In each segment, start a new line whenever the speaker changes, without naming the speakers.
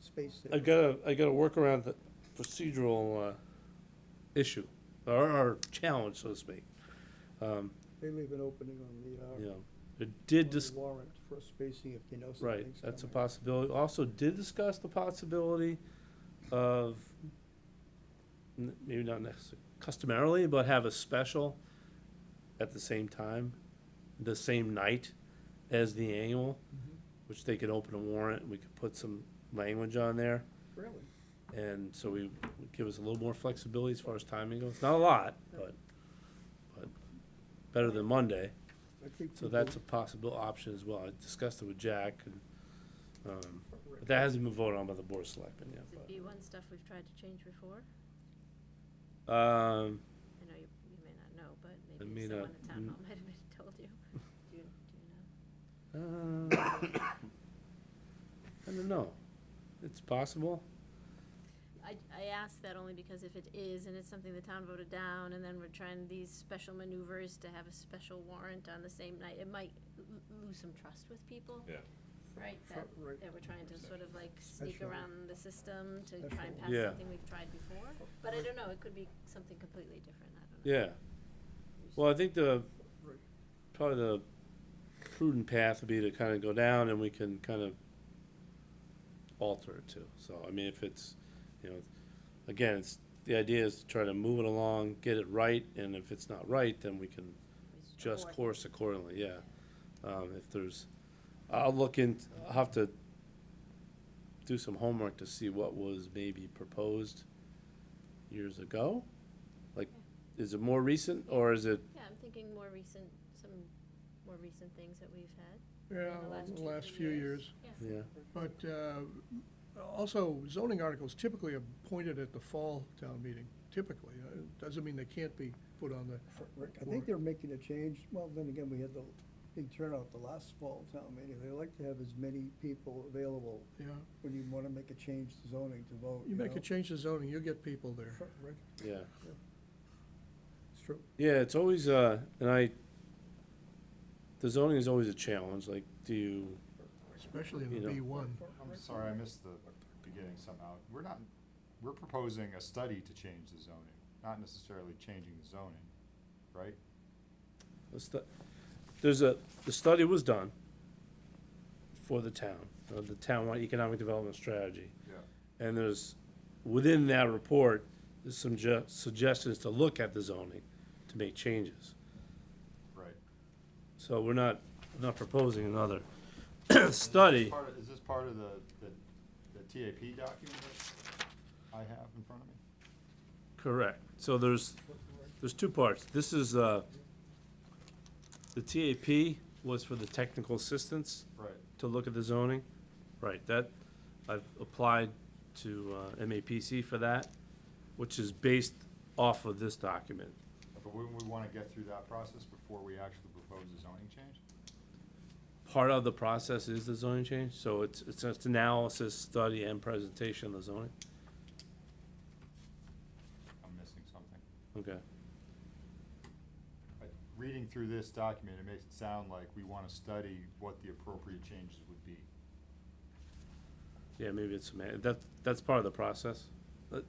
space
I
there.
gotta, I gotta work around the procedural, uh, issue, or, or challenge, so to speak. Um,
They leave an opening on the,
you
uh,
know, it did
on
dis-
the warrant for spacing if you know something's
Right,
coming.
that's a possibility. Also did discuss the possibility of, n- maybe not necessarily customarily, but have a special at the same time, the same night as the annual,
Mhm.
which they could open a warrant, we could put some language on there.
Really?
And so we, would give us a little more flexibility as far as timing goes. Not a lot, but, but better than Monday.
I think
So
people-
that's a possible option as well. I discussed it with Jack and, um, but that hasn't been voted on by the board of selectmen yet,
Is it B one stuff we've tried to change before?
but, um,
I know you, you may not know, but
may
maybe
not
someone at town
kn-
hall might have been told you. Do you, do you know?
uh, I don't know. It's possible.
I, I ask that only because if it is and it's something the town voted down and then we're trying these special maneuvers to have a special warrant on the same night, it might l- l- lose some trust with people.
Yeah.
Right, that,
Fro- right.
that we're trying to sort of like sneak
Absolutely.
around the system to
Absolutely.
try and pass
Yeah.
something we've tried before. But I don't know, it could be something completely different, I don't know.
Yeah. Well, I think the,
Right.
probably the prudent path would be to kind of go down and we can kind of alter it too. So, I mean, if it's, you know, again, it's, the idea is to try to move it along, get it right, and if it's not right, then we can
It's
just
abort.
course accordingly, yeah. Um, if there's, I'll look in, I'll have to do some homework to see what was maybe proposed years ago. Like, is it more recent, or is it,
Yeah, I'm thinking more recent, some more recent things that we've had.
Yeah,
the last
over the
two,
last
three
few
years.
years.
yeah,
But uh, also zoning articles typically appointed at the fall town meeting, typically. Uh, it Doesn't mean they can't be put on the,
Rick, I think they're making a change, well, then again, we had the big turnout the last fall town meeting, they like to have as many people available
you know,
when you wanna make a change to zoning to vote,
you
you know?
make a change to zoning, you get people there.
Fro- Rick,
yeah.
It's true.
Yeah, it's always, uh, and I, the zoning is always a challenge, like, do you,
Especially in
You
the
know.
B one.
I'm sorry, I missed the beginning somehow. We're not, we're proposing a study to change the zoning, not necessarily changing the zoning, right?
what's the, there's a, the study was done for the town, uh, the townwide economic development strategy.
Yeah.
And there's, within that report, there's some ju- suggestions to look at the zoning, to make changes.
Right.
So we're not, not proposing another
Is this
study.
part of- Is this part of the, the, the TAP document that I have in front of me?
Correct. So there's, there's two parts. This is, uh, the TAP was for the technical assistance
Right.
to look at the zoning. Right, that, I've applied to, uh, MAPC for that, which is based off of this document.
But wouldn't we wanna get through that process before we actually propose a zoning change?
part of the process is the zoning change, so it's, it's it's analysis, study, and presentation of the zoning,
I'm missing something.
okay.
I- Reading through this document, it makes it sound like we wanna study what the appropriate changes would be.
Yeah, maybe it's, sema- that, that's part of the process,
But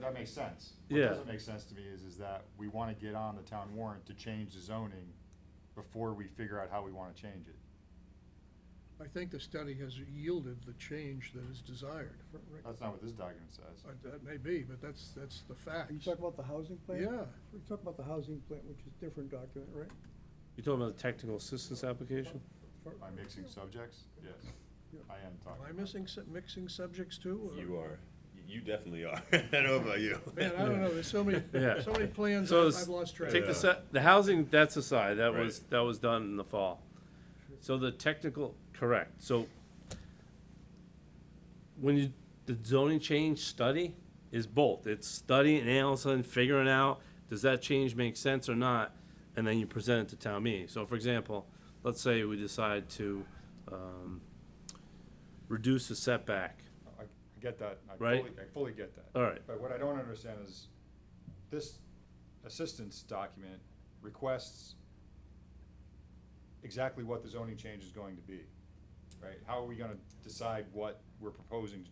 that makes sense.
Yeah.
What doesn't make sense to me is, is that we wanna get on the town warrant to change the zoning before we figure out how we wanna change it.
I think the study has yielded the change that is desired.
That's not what this document says.
Uh, That may be, but that's, that's the
Are
facts.
you talking about the housing plan?
Yeah,
We're talking about the housing plan, which is different document, right?
you talking about the technical assistance application?
For-
Am I mixing subjects? Yes,
Yeah.
I am
am
talking.
I
about-
missing, sub- mixing subjects too? or-
You are. You definitely are. I don't know about you.
Man, I don't know, there's so many,
Yeah.
so many plans,
So
I've
s-
I've lost track.
Take the se- the housing, that's aside, that was,
Right.
that was done in the fall. So the technical, correct, so when you, the zoning change study is both, it's study and analysis and figuring out, does that change make sense or not? And then you present it to town meeting. So for example, let's say we decide to, um, reduce the setback.
I I get that. I
Right.
fully- I fully get that.
All right,
But what I don't understand is, this assistance document requests exactly what the zoning change is going to be, right? How are we gonna decide what we're proposing to